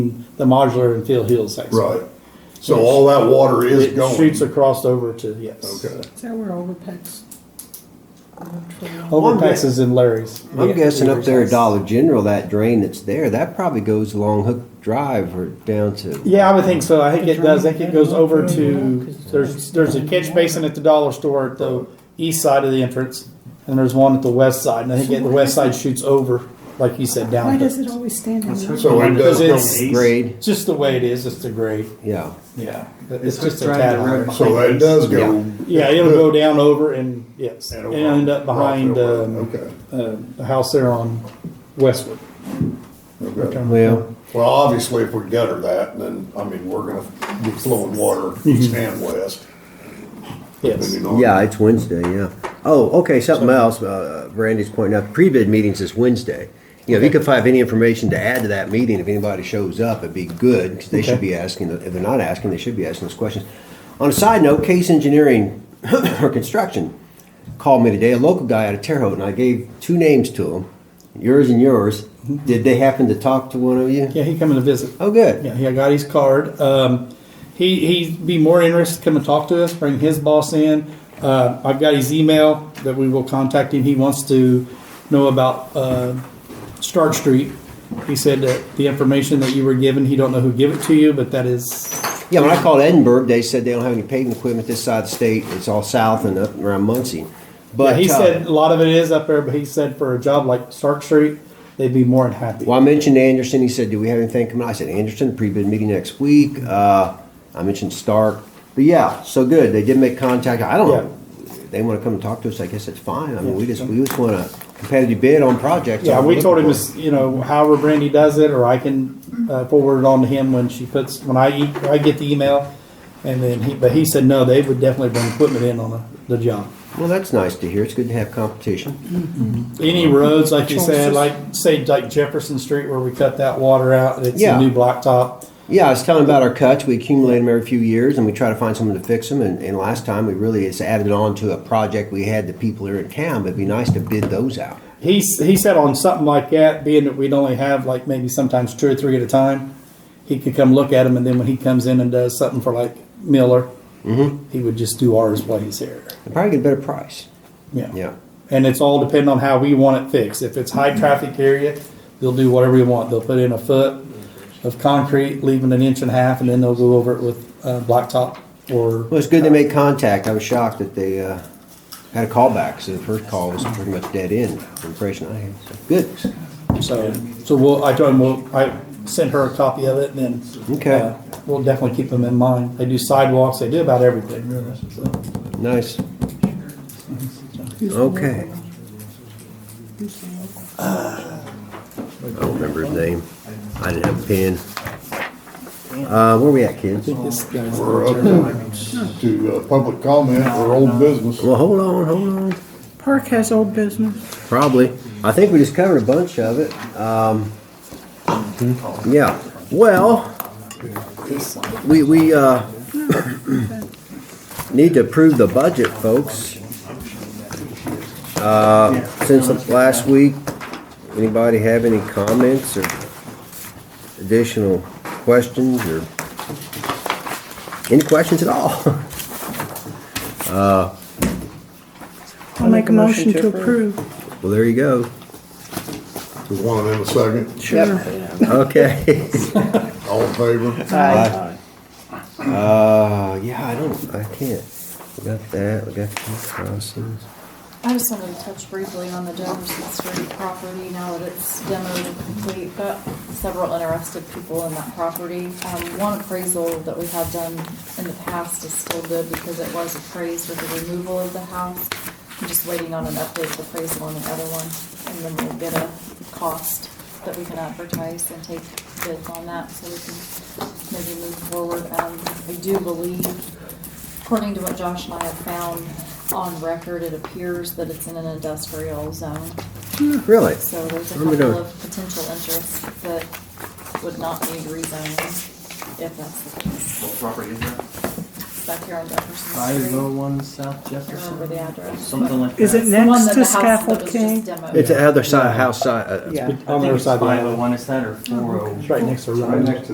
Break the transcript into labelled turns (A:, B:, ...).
A: the modular and Phil Hill section.
B: Right. So all that water is
A: It shoots
B: going.
A: across over to, yes.
B: Okay.
C: Is that where overpacks?
A: Overpasses in Larry's.
D: I'm
A: Yeah.
D: guessing up there at Dollar General, that drain that's there, that probably goes along Hook Drive or down to.
A: Yeah, I would think so. I think it does. I think it goes over to, there's, there's a catch basin at the dollar store at the east side of the entrance. And there's one at the west side. And I think at the west side shoots over, like you said,
C: Why
A: down.
C: does
A: to-
C: it always stand in line?
B: So it does
A: Because it's-
B: go,
D: Grade,
A: It's just the way it is. It's the grade.
D: yeah.
A: Yeah. It's
E: hooked
A: just a
E: right
A: tad
E: in the road.
A: higher.
B: so that does go.
A: Yeah, it'll go down over and, yes,
B: And
A: and
B: over
A: end up behind,
B: Rockville
A: um,
B: Road. Okay.
A: uh, the house there on Westwood.
B: Okay.
D: Well,
B: Well, obviously, if we gutter that, then, I mean, we're gonna be flowing water
A: Mm-hmm.
B: east and west.
A: Yes.
D: yeah, it's Wednesday, yeah. Oh, okay, something else, uh, Randy's pointing out, pre-bid meetings is Wednesday. You know, if you could find any information to add to that meeting, if anybody shows up, it'd be good, because they should
A: Okay.
D: be asking, if they're not asking, they should be asking those questions. On a side note, Case Engineering or Construction called me today, a local guy out of Terre Haute, and I gave two names to him, yours and yours. Did they happen to talk to one of you?
A: Mm-hmm. Yeah, he coming to visit.
D: Oh, good.
A: Yeah, he got his card. Um, he, he'd be more interested to come and talk to us, bring his boss in. Uh, I've got his email that we will contact him. He wants to know about uh, Stark Street. He said that the information that you were given, he don't know who gave it to you, but that is
D: Yeah, when I called Edinburgh, they said they don't have any paving equipment this side of the state. It's all south and up around Muncie. But
A: yeah, he
D: uh,
A: said a lot of it is up there, but he said for a job like Stark Street, they'd be more than happy.
D: well, I mentioned Anderson. He said, "Do we have anything coming?" I said, "Anderson pre-bid meeting next week." Uh, I mentioned Stark, but yeah, so good. They did make contact. I don't know. They want to come and talk to us. I guess that's fine. I mean, we just we just want a competitive bid on projects.
A: Yeah,
D: I'm
A: we
D: looking
A: told him,
D: for.
A: this, you know, however Brandy does it, or I can uh, forward it on to him when she puts, when I, e- I get the email. And then he, but he said, no, they would definitely bring equipment in on the, the job.
D: Well, that's nice to hear. It's good to have competition.
A: Any roads, like you said,
C: Choices.
A: like, say, like Jefferson Street where we cut that water out, it's a
D: Yeah.
A: new blacktop.
D: Yeah, I was telling about our cuts. We accumulate them every few years, and we try to find someone to fix them. And, and last time, we really it's added on to a project we had. The people here in town, but it'd be nice to bid those out.
A: He, s- he said on something like that, being that we'd only have like maybe sometimes two or three at a time, he could come look at them and then when he comes in and does something for like Miller, he would just do ours while he's here.
D: And probably get a better price.
A: Yeah.
D: Yeah.
A: And it's all depending on how we want it fixed. If it's high traffic area, they'll do whatever you want. They'll put in a foot of concrete, leaving an inch and a half, and then they'll go over it with uh, blacktop or.
D: Well, it's good they made contact. I was shocked that they uh, had a callback. So the first call was pretty much dead end. The impression I had. So good.
A: So, so we'll, I told him, we'll, I sent her a copy of it, and then.
D: Okay.
A: uh, We'll definitely keep them in mind. They do sidewalks, they do about everything, really, so.
D: Nice. Okay. I don't remember his name. I didn't have a pen. Uh, where we at, kids?
A: This guy's-
B: We're up to uh, public comment or old business.
D: Well, hold on, hold on.
C: Park has old business.
D: Probably. I think we just covered a bunch of it. Um, yeah. Well, we, we, uh, need to approve the budget, folks. Uh, since last week, anybody have any comments or additional questions or any questions at all?
C: I'll make a motion to approve.
D: Well, there you go.
B: There's one in a second.
C: Sure.
D: Okay.
B: All in favor?
D: Uh, yeah, I don't, I can't. We got that, we got these crosses.
F: I just wanted to touch briefly on the Jefferson Street property now that it's demoed and complete. Got several interested people in that property. Um, one appraisal that we had done in the past is still good because it was appraised with the removal of the house. I'm just waiting on an updated appraisal on the other one, and then we'll get a cost that we can advertise and take bids on that so we can maybe move forward. Um, I do believe According to what Josh and I have found on record, it appears that it's in an industrial zone.
D: Really?
F: So there's a
D: What are we
F: couple
D: doing?
F: of potential interests that would not need rezoning if that's the case.
E: What property is that?
F: Back here on Jefferson
E: Five oh
F: Street.
E: one South
F: I don't remember the
E: Jefferson,
F: address.
E: something like that.
C: Is it
F: It's the one
C: next
F: that
C: to
F: the house that
C: Scaffold
F: was
C: King?
F: just demoed.
D: It's the other side, house side, uh,
A: Yeah. On the
E: I think
A: other
E: it's
A: side of the
E: five oh
A: island.
E: one, is that or four oh?
A: It's right next to. Right next